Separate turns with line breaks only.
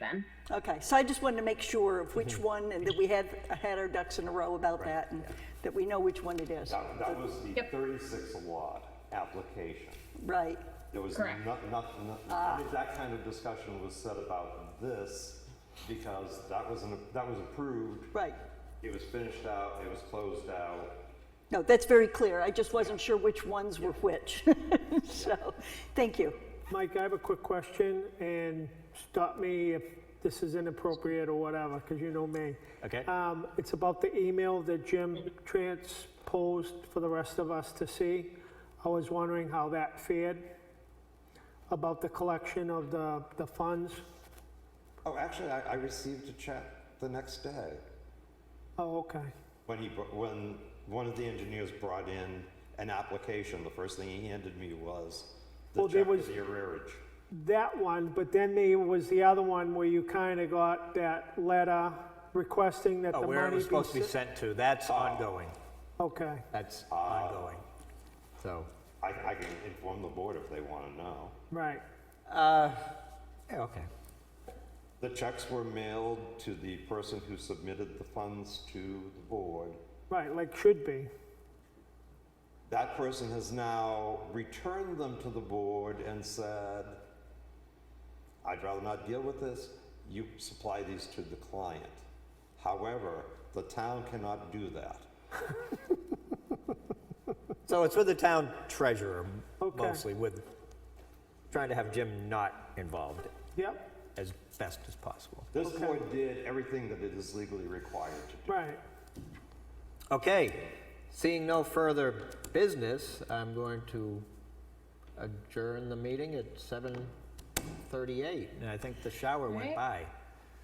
then.
Okay, so I just wanted to make sure of which one, and that we had, had our ducks in a row about that, and that we know which one it is.
That, that was the
Yep.
36 award application.
Right,
There was
Correct. Uh.
no- nothing, nothing, that kind of discussion was said about this because that was, an- that was approved,
right.
it was finished out, it was closed out.
No, that's very clear. I just wasn't sure which ones were which. So, thank you.
Mike, I have a quick question, and stop me if this is inappropriate or whatever, because you know me.
Okay.
Um, It's about the email that Jim transposed for the rest of us to see. I was wondering how that fared, about the collection of the, the funds.
Oh, actually, I, I received a check the next day
Oh, okay.
when he, br- when one of the engineers brought in an application, the first thing he handed me was the
Well, there
check for
was-
the arrearage.
That one, but then there was the other one where you kind of got that letter requesting that the
Oh,
money be... Ah.
where it was supposed to be
se-
sent to, that's ongoing.
Okay,
That's
Ah.
ongoing. So,
I, I can inform the board if they want to know.
right.
yeah, okay.
The checks were mailed to the person who submitted the funds to the board.
Right, like should be.
That person has now returned them to the board and said, I'd rather not deal with this. You supply these to the client. However, the town cannot do that.
So it's with the town treasurer
Okay.
mostly with, trying to have Jim not involved
Yep,
as best as possible.
This board did everything that it is legally required to do.
right.
Okay, seeing no further business, I'm going to adjourn the meeting at 7:38. And I think the shower went
Right.
by.